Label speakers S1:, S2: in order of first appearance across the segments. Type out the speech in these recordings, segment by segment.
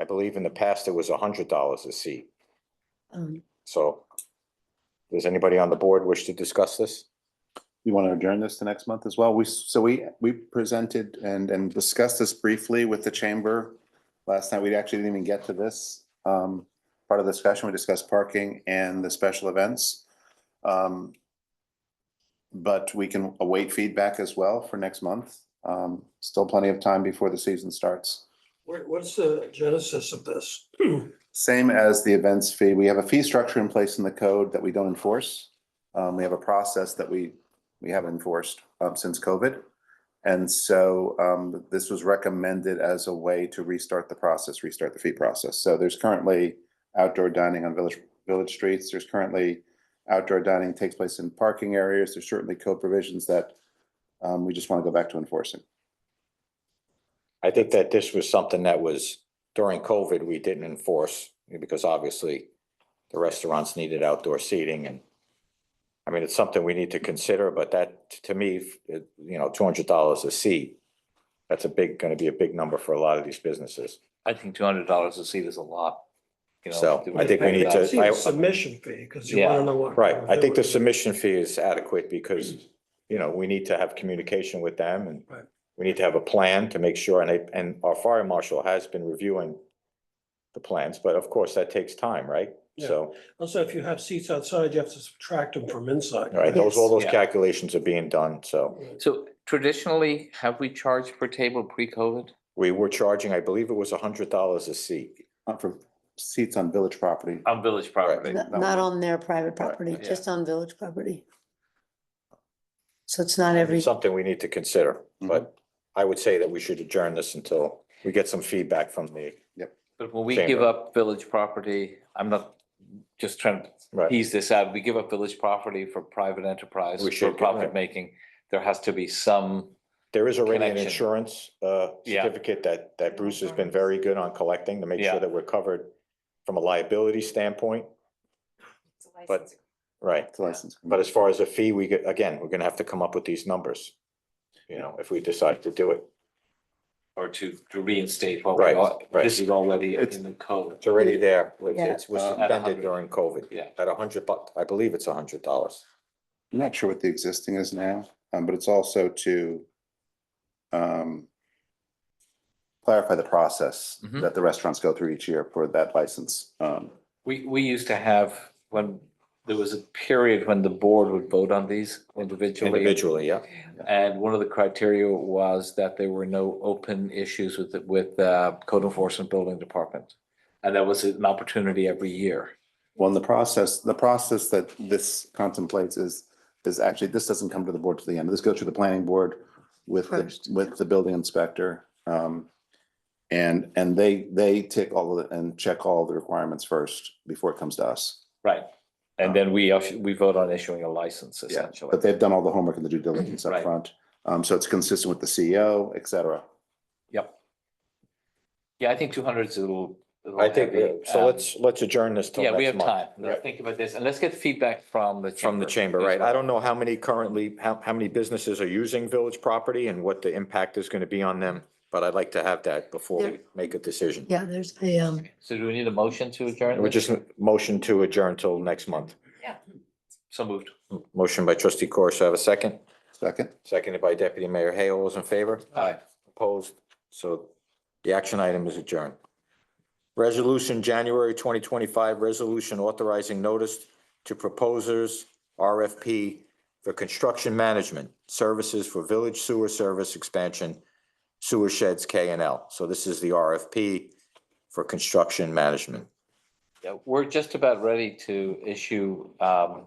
S1: I believe in the past it was hundred dollars a seat.
S2: Um,
S1: So does anybody on the board wish to discuss this?
S3: You want to adjourn this to next month as well? We, so we, we presented and, and discussed this briefly with the chamber. Last night, we actually didn't even get to this. Um, part of the discussion, we discussed parking and the special events. Um, but we can await feedback as well for next month. Um, still plenty of time before the season starts.
S4: What, what's the genesis of this?
S3: Same as the events fee, we have a fee structure in place in the code that we don't enforce. Um, we have a process that we, we haven't enforced, um, since COVID. And so, um, this was recommended as a way to restart the process, restart the fee process. So there's currently outdoor dining on village, village streets. There's currently outdoor dining takes place in parking areas. There's certainly code provisions that, um, we just want to go back to enforcing.
S1: I think that this was something that was during COVID, we didn't enforce because obviously the restaurants needed outdoor seating and I mean, it's something we need to consider, but that to me, it- you know, two hundred dollars a seat, that's a big, gonna be a big number for a lot of these businesses.
S5: I think two hundred dollars a seat is a lot. you know,
S1: So,
S5: to-
S1: I think we need to-
S4: I see the Submission fee, because you want to know what.
S1: Right, I think the submission fee is adequate because, you know, we need to have communication with them and
S4: Right.
S1: we need to have a plan to make sure, and, I- and our fire marshal has been reviewing the plans, but of course, that takes time, right?
S4: Yeah.
S1: So,
S4: Also, if you have seats outside, you have to subtract them from inside.
S1: all right, those, all those
S5: Yes.
S1: calculations are being done, so
S5: So traditionally, have we charged per table pre-COVID?
S1: we were charging, I believe it was a hundred dollars a seat.
S3: Not uh, for seats on village property.
S5: On village property.
S2: not
S3: no.
S2: not on their private property,
S5: yeah.
S2: just on village property. So it's not every,
S1: It's something we need to consider, but I would say that we should adjourn this until we get some feedback from the,
S5: But when we
S1: Chamber.
S5: give up village property, I'm not just trying to
S1: right,
S5: piece this out. We give up village property for private enterprise,
S1: We
S5: for
S1: should, right.
S5: profit making. There has to be some,
S1: there is already an
S5: Connection.
S1: insurance, uh,
S5: Yeah.
S1: certificate that, that Bruce has been very good on collecting to make
S5: Yeah.
S1: sure that we're covered from a liability standpoint, but, right.
S5: Mm-hmm.
S3: It's a license.
S1: But as far as a fee, we get, again, we're gonna have to come up with these numbers. You know, if we decide to do it,
S5: or to to reinstate what we
S1: Right,
S5: are.
S1: right.
S5: This is already
S3: It's-
S5: in the code.
S1: it's already there, It's-
S2: Yeah.
S1: it's was
S3: Uh, at
S1: suspended
S5: 100.
S1: during COVID.
S5: Yeah.
S1: At a hundred bucks, I believe it's a hundred dollars.
S3: I'm not sure what the existing is now, um, but it's also to um, clarify the process
S5: Mhm.
S3: that the restaurants go through each year for that license. Um,
S5: We, we used to have, when, there was a period when the board would vote on these individually.
S1: Individually, yeah,
S5: And one of the criteria was that there were no open issues with, the- with uh, code enforcement building department. And that was an opportunity every year.
S3: Well, and the process, the process that this contemplates is, is actually, this doesn't come to the board to the end. This goes through the planning board with, the-
S2: First, yeah.
S3: with the building inspector. um, And, and they, they take all of it and check all the requirements first before it comes to us.
S5: Right. And then we, us- we vote on issuing a license essentially.
S3: But they've done all the homework and the due diligence up
S5: Right.
S3: front, Um, so it's consistent with the CEO, et cetera.
S5: Yep. Yeah, I think two hundred is a little. a little
S1: I think,
S5: heavy.
S1: uh, so
S5: Um,
S1: let's, let's adjourn this till
S5: Yeah, we
S1: next
S5: have
S1: month.
S5: time. Let's think about this and let's get feedback from the.
S1: From the chamber,
S5: as
S1: right,
S5: well.
S1: I don't know how many currently, how, how many businesses are using village property and what the impact is gonna be on them. But I'd like to have that before we
S2: There-
S1: make a decision.
S2: yeah, there's a, um,
S5: So do we need a motion to adjourn?
S1: We're
S5: this?
S1: just motion to adjourn till next month.
S5: So moved.
S1: Motion by trustee Corish, have a second?
S3: Second?
S1: Seconded by deputy mayor Hay, all those in favor?
S5: Aye.
S1: Opposed? So the action item is adjourned. Resolution, January twenty twenty-five, resolution authorizing notice to proposers, RFP for construction management services for village sewer service expansion, sewer sheds K and L. So this is the RFP for construction management.
S5: Yeah, we're just about ready to issue um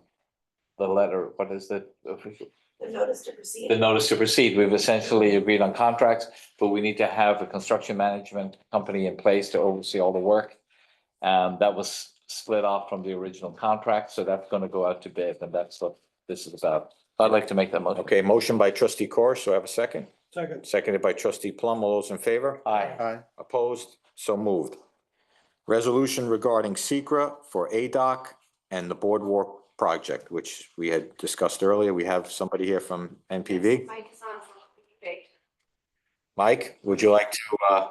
S5: the letter, what is the official?
S6: The notice to proceed.
S5: The notice to proceed. We've essentially agreed on contracts, but we need to have a construction management company in place to oversee all the work. Um, that was split off from the original contract, so that's gonna go out to bid, and that's what this is about. I'd like to make that motion.
S1: Okay, motion by trustee Corish, do I have a second?
S4: Second,
S1: Seconded by trustee Plum, all those in favor?
S5: Aye.
S3: Aye.
S1: Opposed? So moved. Resolution regarding Secra for ADOC and the Boardwalk Project, which we had discussed earlier. We have somebody here from NPV.
S6: Mike is on from PV.
S1: Mike, would you like to uh,